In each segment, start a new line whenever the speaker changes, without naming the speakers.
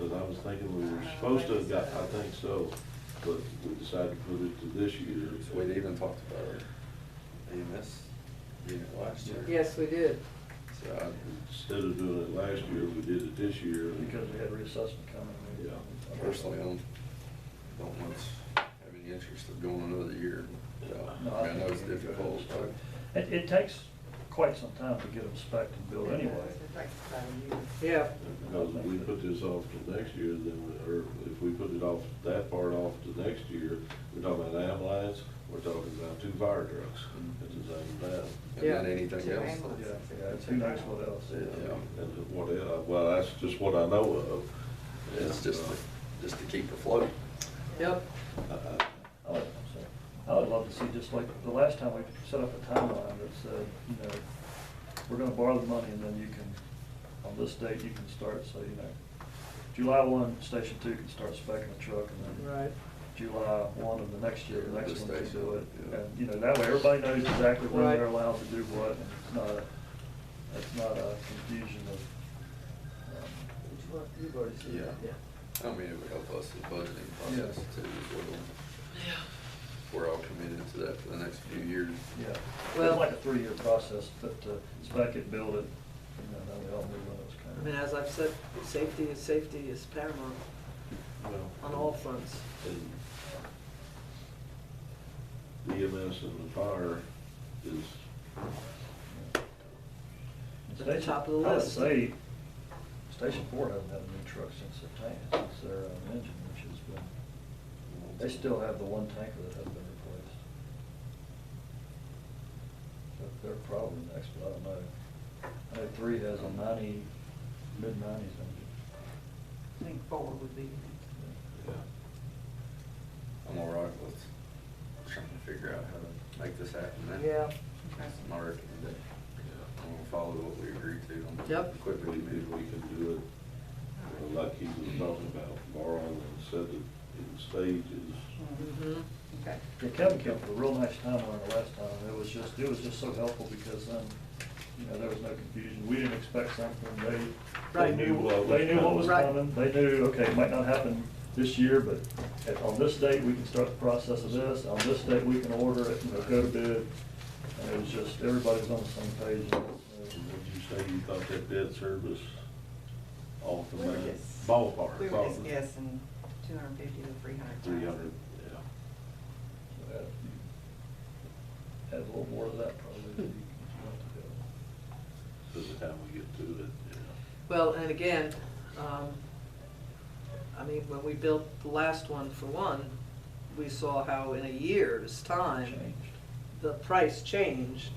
I was thinking we were supposed to have got, I think so, but we decided to put it to this year.
We'd even talked about EMS unit last year.
Yes, we did.
So I,
Instead of doing it last year, we did it this year. and-
Because we had reassessment coming. we-
Yeah.
personally, I don't, don't much have any interest of going another year. So,
No,
uh, I mean, I know
think
it's
we need to go ahead and
difficult,
start.
but
It, it takes quite some time to get them spec'd and built anyway.
Yeah,
and Because if we put this off to next year, then, we- or if we put it off, that part off to next year, we're talking about ambulance, we're talking about two fire trucks
Mm-hmm.
at the same time.
and then
Yeah.
anything
Two
else.
Yeah,
ambulances.
yeah, who knows what else?
Yeah.
And what, el- well, that's just what I know of. Uh,
It's just, to- just to keep afloat.
yep.
I- I-
I would- so, I would love to see, just like the last time, we set up a timeline that said, you know, we're gonna borrow the money and then you can, on this date, you can start, so, you know, July one, station two can start specking a truck and then
Right.
July one of the next year, the next
This
one can
station,
do it.
yeah.
And, you know, that way everybody knows exactly when
Right.
they're allowed to do what. and It's not, a- it's not a confusion of, um,
You've already seen that.
Yeah. I mean, it would help us with budgeting process
Yeah.
too. as well. We're all committed to that for the next few years.
Yeah,
Well-
it's like a three-year process, but uh, spec it, build it, and then uh, we all knew when it was
I mean,
coming.
as I've said, safety is, safety is paramount
well,
on all fronts.
and EMS and the fire is,
And
At the
station-
top of the
I would
list.
say, Station Four hasn't had a new truck since the tank, since their um, engine, which has been, they still have the one tanker that hasn't been replaced. So They're probably next, but I don't know. I know three has a ninety, mid-nineties engine.
I think four would be.
yeah.
I'm all right with trying to figure out how to make this happen. then.
Yeah,
That's my recommendation. uh, I'm gonna follow what we agreed to on.
Yep.
If we, if
Equipment
we
committee.
can do it, you know, like he was talking about, borrowing and set it in stages.
mm-hmm,
Okay.
Yeah, Kevin came up with a real nice timeline the last time, and it was just, it was just so helpful because then, you know, there was no confusion, we didn't expect something, they,
Right.
they knew, what- they knew what was
Right.
coming, they knew, okay, it might not happen this year, but at- on this date, we can start the process of this, on this date, we can order it, you know, go to bid. And it was just, everybody was on the same page,
And
and, uh,
would you say you thought that debt service off the
We were
man-
just-
ballpark?
We were just guessing two hundred and fifty to three hundred.
Three hundred, yeah.
so add a few- add uh, a little more to that probably. if you want to do it.
By the time we get to it, yeah.
well, and again, um, I mean, when we built the last one for one, we saw how in a year's time,
Changed.
the price changed.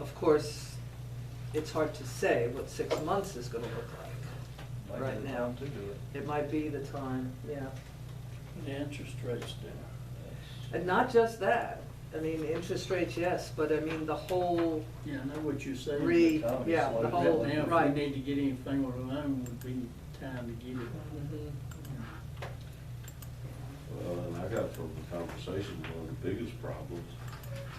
Of course, it's hard to say what six months is gonna look like.
Might be
Right
the
now.
time To do it.
It might be the time, yeah.
The interest rates down.
And not just that, I mean, interest rates, yes, but I mean, the whole
Yeah, I know what you're saying.
re,
the economy
yeah, the
slowed
But
whole,
down.
Now, if
right.
we need to get anything with a loan, would be time to get it.
Mhm.
Well, and I got from the conversation, one of the biggest problems,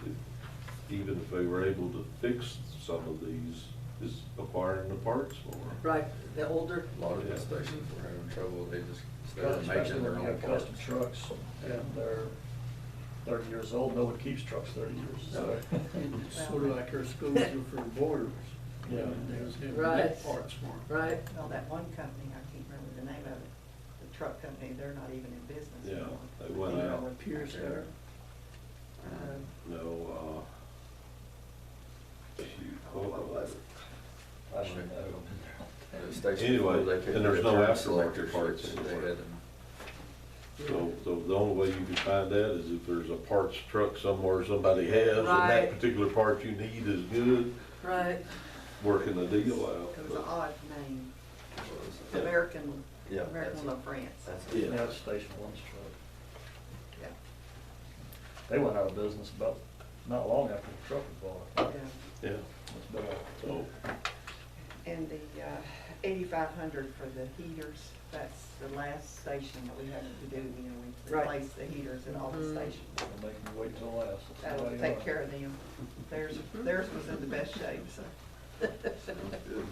if- even if they were able to fix some of these, is acquiring the parts for them.
Right, the older,
A lot of the
Yeah.
stations were having trouble, they just started
Especially
making
when
their
you
own
have
parts.
custom trucks, and they're thirty years old, no one keeps trucks thirty years, so.
It's sort of like our schools are for borders.
Yeah.
They was having
Right.
that parts for 'em.
right,
Well, that one company, I can't remember the name of it, the truck company, they're not even in business
Yeah,
anymore.
they went
They're
out.
all in
Pierce there.
um,
Uh,
No, uh, shoot, what was it?
I don't even know.
The station
Anyway,
before they couldn't
and there's
get
no
turn
aftermarket
selectors,
parts
so They
anywhere.
had to
So, so the only way you can find that is if there's a parts truck somewhere somebody has, and that
Right.
particular part you need is good,
right.
working the deal out.
It was an odd name,
Yeah.
American,
Yeah, that's
American La
it.
France.
That's
Yeah.
it.
Now it's Station One's truck.
Yeah.
They went out of business about, not long after the truck was bought.
Yeah,
Yeah.
It's been a-
so,
And the uh, eighty-five hundred for the heaters, that's the last station that we have to do, you know, we
Right.
replace the heaters at all the
Mhm.
stations.
They're making you wait till last. That's the way
That'll
they are.
take care of them. Theirs, theirs was in the best shape, so.
Sounds good.